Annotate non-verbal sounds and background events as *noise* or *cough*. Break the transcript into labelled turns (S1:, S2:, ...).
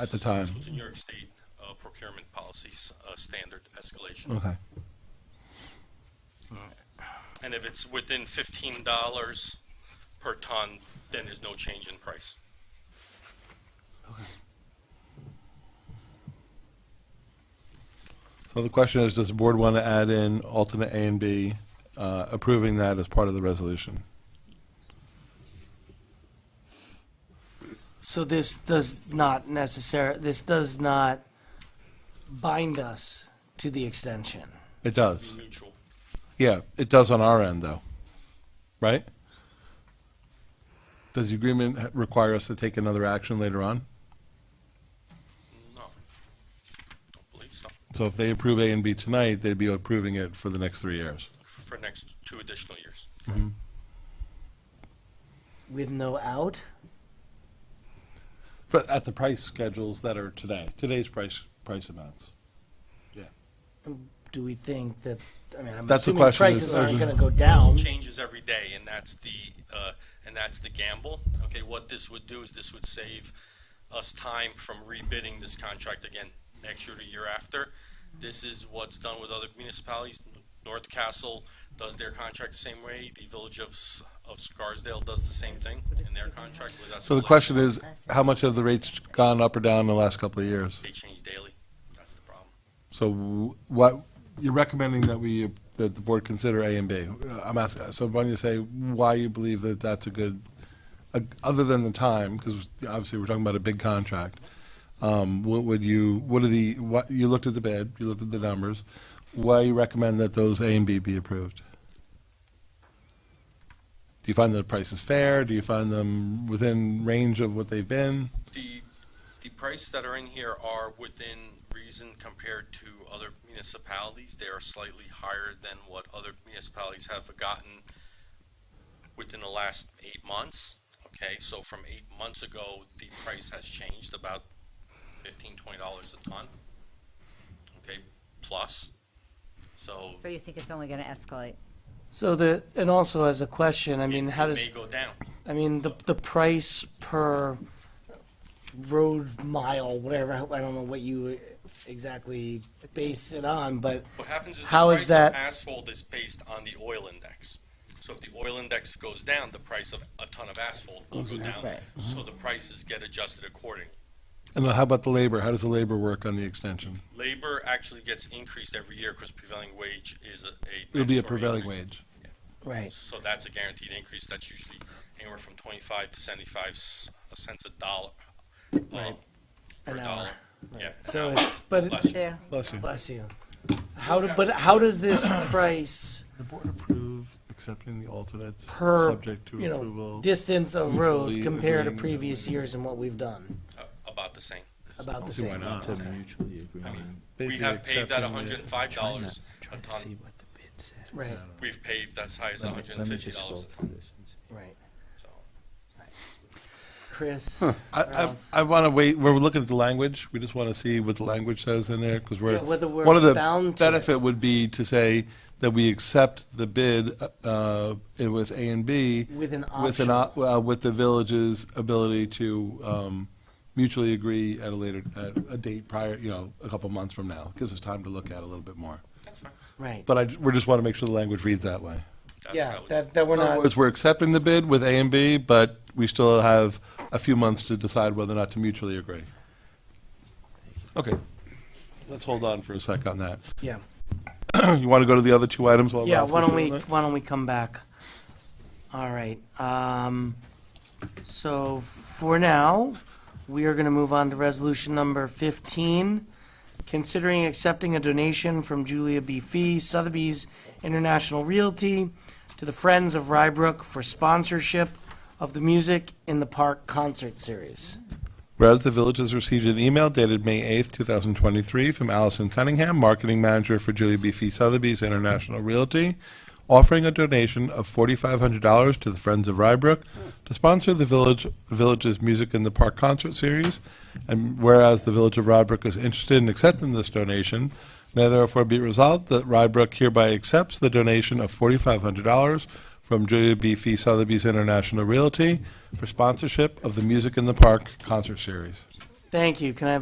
S1: at the time.
S2: This was a New York State uh, procurement policy s- uh, standard escalation.
S1: Okay.
S2: And if it's within fifteen dollars per ton, then there's no change in price.
S1: So the question is, does the board want to add in alternate A and B, uh, approving that as part of the resolution?
S3: So this does not necessar, this does not bind us to the extension.
S1: It does.
S2: Neutral.
S1: Yeah, it does on our end, though. Right? Does the agreement ha- require us to take another action later on?
S2: No. Don't believe so.
S1: So if they approve A and B tonight, they'd be approving it for the next three years.
S2: For next two additional years.
S3: With no out?
S1: But at the price schedules that are today, today's price, price amounts.
S3: Do we think that, I mean, I'm
S1: That's the
S3: assuming
S1: question is-
S3: prices aren't gonna go down.
S2: Changes every day, and that's the, uh, and that's the gamble. Okay, what this would do is this would save us time from rebidding this contract again next year to year after. This is what's done with other municipalities. North Castle does their contract the same way. The Village of, S- of Scarsdale does the same thing in their contract. without
S1: So the question
S2: selection.
S1: is, how much have the rates gone up or down in the last couple of years?
S2: They change daily. That's the problem.
S1: So w- what, you're recommending that we, that the board consider A and B. Uh, I'm asking, so why don't you say why you believe that that's a good, a- other than the time, because obviously we're talking about a big contract. Um, What would you, what are the, what, you looked at the bid, you looked at the numbers. Why you recommend that those A and B be approved? Do you find the prices fair? Do you find them within range of what they've been?
S2: The, the prices that are in here are within reason compared to other municipalities. They are slightly higher than what other municipalities have gotten within the last eight months. Okay, so from eight months ago, the price has changed about fifteen, twenty dollars a ton. Okay, plus, so.
S4: So you think it's only going to escalate?
S3: So the, and also as a question, I mean,
S2: it-
S3: how
S2: it
S3: does,
S2: May go down.
S3: I mean, the, the price per road mile, whatever, I don't know what you exactly base it on, but
S2: What happens is the
S3: How is
S2: price
S3: that-
S2: of asphalt is based on the oil index. So if the oil index goes down, the price of a ton of asphalt will go down.
S3: Right.
S2: So the prices get adjusted accordingly.
S1: And how about the labor? How does the labor work on the extension?
S2: Labor actually gets increased every year because prevailing wage is a.
S1: It'll be a
S2: mandatory
S1: prevailing
S2: increase.
S1: wage.
S3: Right.
S2: So that's a guaranteed increase. That's usually anywhere from twenty-five to seventy-five s- cents a dollar. uh, Per
S3: An hour.
S2: dollar. Yeah.
S3: So it's, but, it-
S2: Less.
S4: Yeah.
S1: Bless you.
S3: bless you. How, do- but how does this price
S1: The board approve accepting the alternates,
S3: per,
S1: subject to
S3: you
S1: approval.
S3: know, distance of road
S1: mutually
S3: compare to
S1: agreeing.
S3: previous years and what we've done?
S2: Uh, About the same.
S3: About the
S1: see why
S3: same.
S1: not.
S3: amount.
S5: mutually agreeing.
S2: We
S1: Basically
S2: have paid that
S1: accepting the-
S2: hundred and five dollars a
S5: Trying to see
S2: ton.
S5: what the bid said.
S3: Right,
S2: We've paid as high as
S5: Let me-
S2: hundred
S5: let
S2: and
S5: me
S2: fifty
S5: just
S2: dollars
S5: scroll
S2: a
S5: through this and see.
S3: right.
S2: So,
S3: Chris,
S1: I, I, I want to wait, we're looking at the language, we just want to see what the language says in there, because we're.
S3: Yeah, whether we're
S1: one of the
S3: bound to it.
S1: Benefit would be to say that we accept the bid, uh, with A and B.
S3: With an
S1: With an, op- uh, with the village's ability to, um, mutually agree at a later, at a date prior, you know, a couple months from now. Gives us time to look at it a little bit more.
S2: that's fine.
S3: right.
S1: But I, we just want to make sure the language reads that way.
S2: That's
S3: Yeah,
S2: how it's-
S3: that, that we're
S1: In other
S3: not,
S1: words, we're accepting the bid with A and B, but we still have a few months to decide whether or not to mutually agree. Okay, let's hold on for a sec on that.
S3: yeah.
S1: *clears throat* You want to go to the other two items while
S3: Yeah,
S1: Ralph
S3: why
S1: is
S3: don't
S1: doing
S3: we,
S1: that?
S3: why don't we come back? All right, um, so for now, we are gonna move on to resolution number fifteen. Considering accepting a donation from Julia B. Fee, Sotheby's International Realty to the Friends of Rybrook for sponsorship of the Music in the Park concert series.
S1: Whereas the village has received an email dated May 8th, 2023, from Allison Cunningham, Marketing Manager for Julia B. Fee Sotheby's International Realty, offering a donation of $4,500 to the Friends of Rybrook to sponsor the village, village's Music in the Park concert series. And whereas the village of Rybrook is interested in accepting this donation, now therefore be it resolved that Rybrook hereby accepts the donation of $4,500 from Julia B. Fee Sotheby's International Realty for sponsorship of the Music in the Park concert series.
S3: Thank you. Can I have